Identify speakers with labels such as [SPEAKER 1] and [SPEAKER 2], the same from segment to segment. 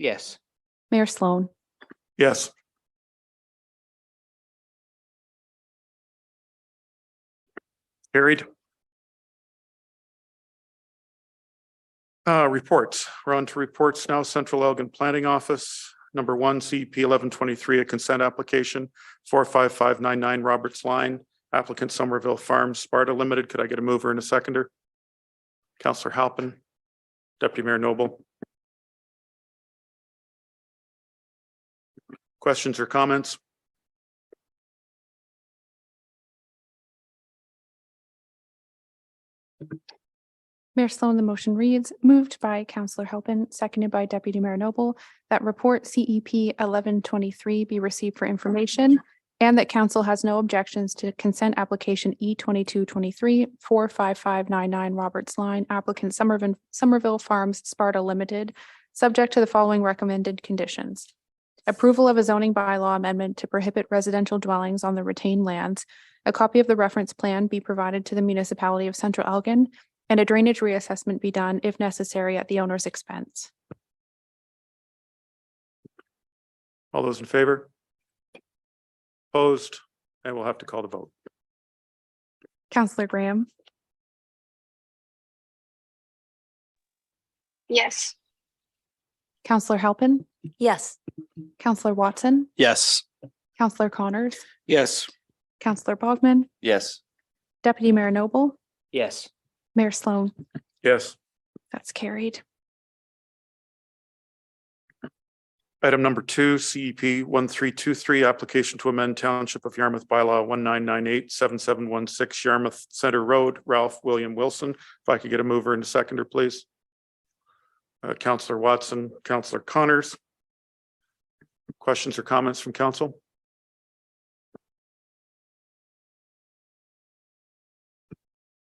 [SPEAKER 1] Yes.
[SPEAKER 2] Mayor Sloan,
[SPEAKER 3] Yes. Carried. Uh, reports. We're on to reports now. Central Elgin Planning Office, number one, CP eleven twenty-three, a consent application, four five five nine nine Roberts Line, applicant Somerville Farms Sparta Limited. Could I get a mover and a seconder? Counselor Halpin, Deputy Mayor Noble. Questions or comments?
[SPEAKER 2] Mayor Sloan, the motion reads, moved by Councillor Helpin, seconded by Deputy Mayor Noble, that report CEP eleven twenty-three be received for information and that council has no objections to consent application E twenty-two twenty-three four five five nine nine Roberts Line applicant Somerville, Somerville Farms Sparta Limited, subject to the following recommended conditions. Approval of a zoning bylaw amendment to prohibit residential dwellings on the retained lands. A copy of the reference plan be provided to the municipality of Central Elgin and a drainage reassessment be done if necessary at the owner's expense.
[SPEAKER 3] All those in favor? Opposed? And we'll have to call the vote.
[SPEAKER 2] Counselor Graham,
[SPEAKER 4] Yes.
[SPEAKER 2] Counselor Halpin,
[SPEAKER 5] Yes.
[SPEAKER 2] Counselor Watson,
[SPEAKER 1] Yes.
[SPEAKER 2] Counselor Connors,
[SPEAKER 1] Yes.
[SPEAKER 2] Counselor Bogman,
[SPEAKER 1] Yes.
[SPEAKER 2] Deputy Mayor Noble,
[SPEAKER 1] Yes.
[SPEAKER 2] Mayor Sloan.
[SPEAKER 3] Yes.
[SPEAKER 2] That's carried.
[SPEAKER 3] Item number two, CEP one three two three, application to amend Township of Yarmouth bylaw one nine nine eight seven seven one six Yarmouth Center Road, Ralph William Wilson. If I could get a mover and a seconder, please. Uh, Counselor Watson, Counselor Connors. Questions or comments from council?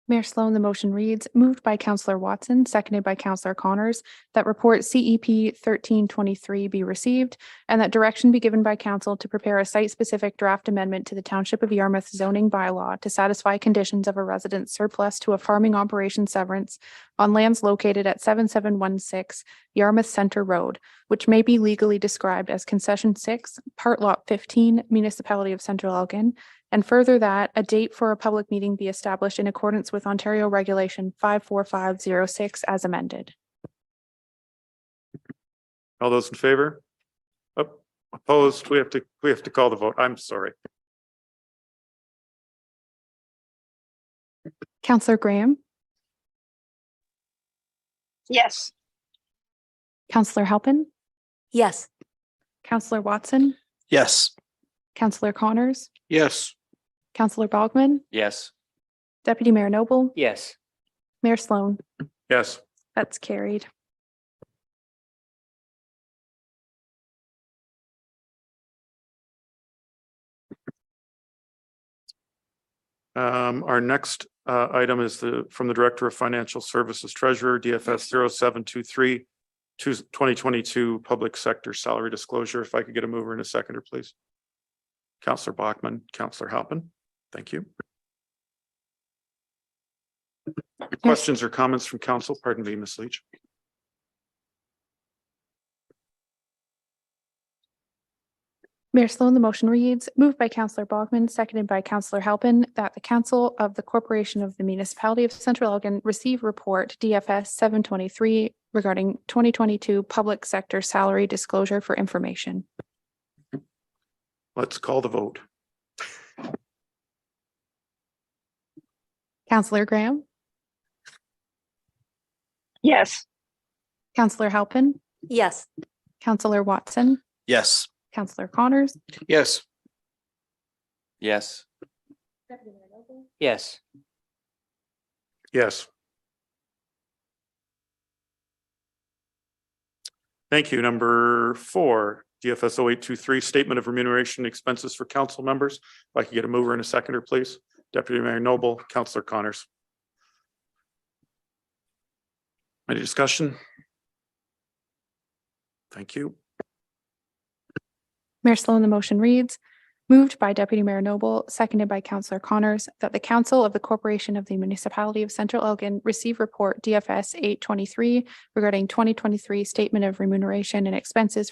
[SPEAKER 2] Mayor Sloan, the motion reads, moved by Counselor Watson, seconded by Counselor Connors, that report CEP thirteen twenty-three be received and that direction be given by council to prepare a site-specific draft amendment to the Township of Yarmouth zoning bylaw to satisfy conditions of a resident surplus to a farming operation severance on lands located at seven seven one six Yarmouth Center Road, which may be legally described as concession six, part lot fifteen, municipality of Central Elgin, and further that a date for a public meeting be established in accordance with Ontario Regulation five four five zero six as amended.
[SPEAKER 3] All those in favor? Op- Opposed? We have to, we have to call the vote. I'm sorry.
[SPEAKER 2] Counselor Graham,
[SPEAKER 4] Yes.
[SPEAKER 2] Counselor Halpin,
[SPEAKER 5] Yes.
[SPEAKER 2] Counselor Watson,
[SPEAKER 1] Yes.
[SPEAKER 2] Counselor Connors,
[SPEAKER 1] Yes.
[SPEAKER 2] Counselor Bogman,
[SPEAKER 1] Yes.
[SPEAKER 2] Deputy Mayor Noble,
[SPEAKER 1] Yes.
[SPEAKER 2] Mayor Sloan.
[SPEAKER 3] Yes.
[SPEAKER 2] That's carried.
[SPEAKER 3] Um, our next uh item is the, from the Director of Financial Services Treasurer, DFS 0723 two- 2022 Public Sector Salary Disclosure. If I could get a mover and a seconder, please. Counselor Bachman, Counselor Halpin, thank you. Questions or comments from council? Pardon me, Ms. Leach.
[SPEAKER 2] Mayor Sloan, the motion reads, moved by Counselor Bogman, seconded by Counselor Halpin, that the Council of the Corporation of the Municipality of Central Elgin receive report DFS seven twenty-three regarding twenty twenty-two public sector salary disclosure for information.
[SPEAKER 3] Let's call the vote.
[SPEAKER 2] Counselor Graham,
[SPEAKER 4] Yes.
[SPEAKER 2] Counselor Halpin,
[SPEAKER 5] Yes.
[SPEAKER 2] Counselor Watson,
[SPEAKER 1] Yes.
[SPEAKER 2] Counselor Connors,
[SPEAKER 1] Yes. Yes. Yes.
[SPEAKER 3] Yes. Thank you. Number four, DFS 0823 Statement of Remuneration and Expenses for Council Members. If I could get a mover and a seconder, please. Deputy Mayor Noble, Councillor Connors. Any discussion? Thank you.
[SPEAKER 2] Mayor Sloan, the motion reads, Moved by Deputy Mayor Noble, seconded by Councillor Connors, that the Council of the Corporation of the Municipality of Central Elgin receive report DFS eight twenty-three regarding twenty twenty-three Statement of Remuneration and Expenses for